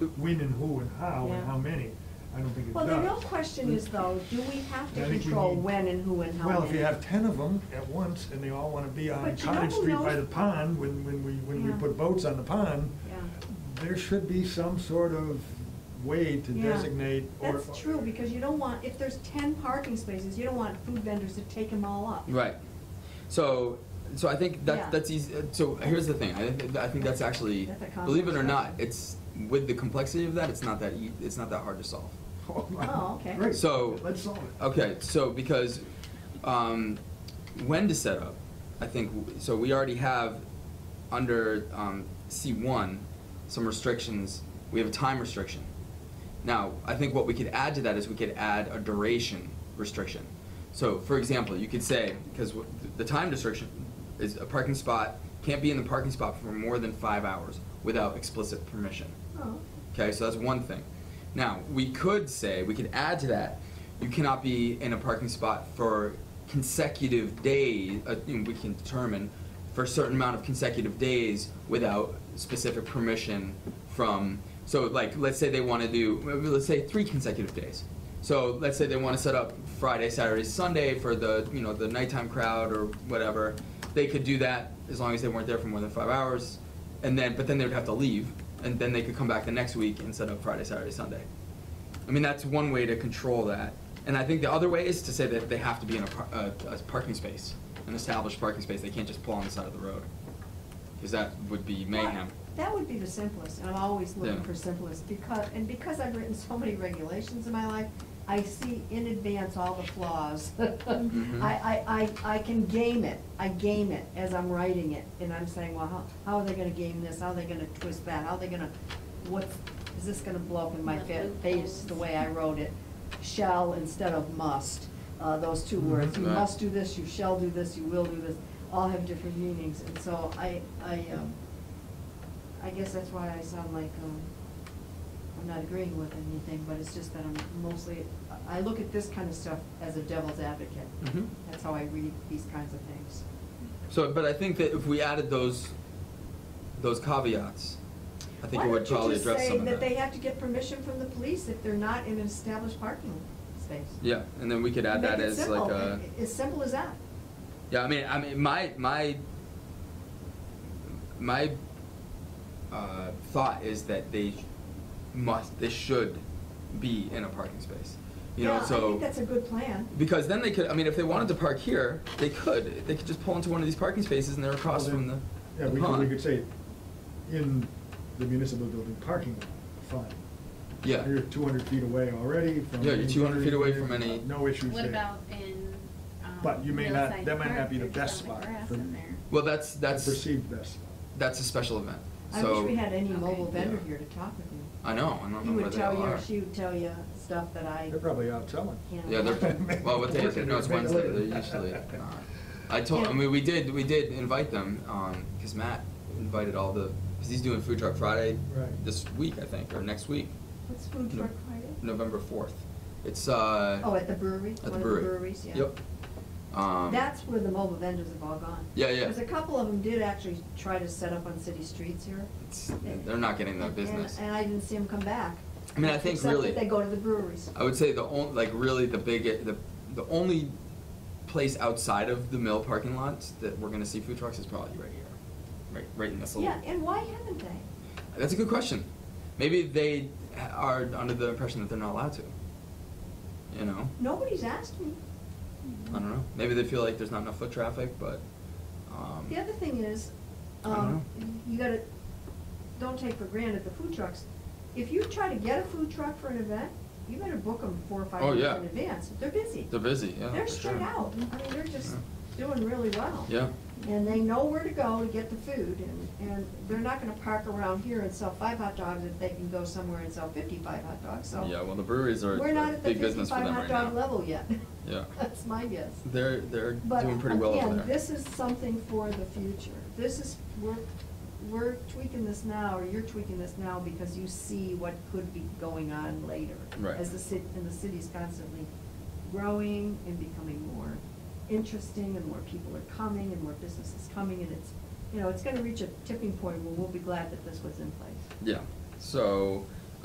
when and who and how and Yeah. how many, I don't think it Well, does. the real question is though, do we have I to think we control need- when and who and how many? Well, if you have ten of them at once and they all wanna be on But you know Cottage who Street by the knows- pond, when, when we, when we Yeah. put boats on the pond, Yeah. there should be some sort of way to Yeah. designate or. That's true, because you don't want, if there's ten parking spaces, you don't want food vendors to take them all up. Right. So, so I think that Yeah. that's easy. uh, So here's the thing. I, thi- I think that's actually, That's a believe it or complex not, question. it's with the complexity of that, it's not that ea- it's not that hard to solve. Oh, okay. Great, So- let's solve it. Okay. So because um, when to set up, I think w- so. We already have under um, C one some restrictions. We have a time restriction. Now, I think what we could add to that is we could add a duration restriction. So, for example, you could say, because the time restriction is a parking spot can't be in the parking spot for more than five hours without explicit permission. Oh, Okay, so that's one thing. Now, we could say, we could add to that, you cannot be in a parking spot for consecutive days, uh, you know, we can determine for a certain amount of consecutive days without specific permission from, so like, let's say they wanna do, let's say three consecutive days. So let's say they wanna set up Friday, Saturday, Sunday for the, you know, the nighttime crowd or whatever. They could do that as long as they weren't there for more than five hours and then but then they would have to leave and then they could come back the next week and set up friday saturday sunday i mean that's one way to control that and i think the other way is to say that they have to be in a, par- a, a parking space an established parking space they can't just pull on the side of the road because that would be mayhem Well, That would be the simplest, and I'm always looking Yeah. for simplest, because, and because I've written so many regulations in my life, I see in advance all the flaws. Mhm. I, I, I, I can game it, I game it as I'm writing it, and I'm saying, well, how, how are they gonna game this, how are they gonna twist that, how are they gonna, what's, is this gonna blow up in my fa- face, the way I wrote it? Shall instead of must, uh, those two words, you Mm-hmm. Right. must do this, you shall do this, you will do this, all have different meanings, and so I, I, um, I guess that's why I sound like, um, I'm not agreeing with anything, but it's just that I'm mostly, I look at this kind of stuff as a devil's advocate. Mhm. That's how I read these kinds of things. so but i think that if we added those those caveats i think it would probably address some Why don't of you just say that they have to get permission from the police if they're not in an established parking space? yeah and then we could add that Make it as simple, like a a- As simple as that. Yeah, I mean, I mean, my my my uh, thought is that they must, they should be in a parking space. You know, so Yeah, I think that's a good plan. because then they could. I mean, if they wanted to park here, they could. They could just pull into one of these parking spaces, and they're across Well, from the, then- Yeah, the we could, pond. we could say, in the municipal building parking lot, fine. Yeah. You're two hundred feet away already from. Yeah, you're 200 feet away from any- No issues there. What about in, um. But you may not- Millside that might not Park, be the there's best a lot of spot grass for- in there. Well, that's that's Perceived best. that's a special event. I so wish we had any Okay. mobile vendor Yeah. here to talk with you. I know. I don't He know where would they tell all you, are. or she would tell you stuff that I. They're probably out selling. Yeah. Yeah, they're, well, what day is it? No, it's Wednesday, they're usually not. I told, I mean, we did, we did invite them, um, cause Matt invited all the, cause he's doing Food Truck Friday Right. this week, I think, or next week, What's food No. truck Friday? November fourth. It's, uh. Oh, at the brewery? At the One of the brewery. breweries, yeah. Yep. Um. That's where the mobile vendors have all gone. Yeah, yeah. Because a couple of them did actually try to set up on city streets here. It's- they're not getting that And- business. And I didn't see them come back. I mean, I think really- Except that they go to the breweries. I would say the only, like really the big, the, the only place outside of the mill parking lots that we're gonna see food trucks is probably right here. Right, right in this little. Yeah, and why haven't they? That's a good question. Maybe they are under the impression that they're not allowed to. You know? Nobody's asked me. I don't know. Maybe they feel like there's not enough foot traffic, but. Um, The other thing is, I don't um, you gotta, don't take for granted the food trucks. If you try to get a food truck for an event, you better book them four or five Oh, months yeah. in advance. They're busy. They're busy, yeah. They're for sure. straight out. I mean, they're just Yeah. doing really well. Yeah. And they know where to go to get the food and, and they're not gonna park around here and sell five hot dogs if they can go somewhere and sell fifty-five hot dogs, so. Yeah, well, the breweries are We're not a at the big business for fifty-five them hot right now. dog level yet. Yeah. That's my guess. They're, they're But doing pretty well over there. Again, this is something for the future. This is, we're, we're tweaking this now, or you're tweaking this now because you see what could be going on later. Right. As the city, and the city's constantly growing and becoming more interesting, and more people are coming, and more businesses coming, and it's, you know, it's gonna reach a tipping point where we'll be glad that this was in place. Yeah, so,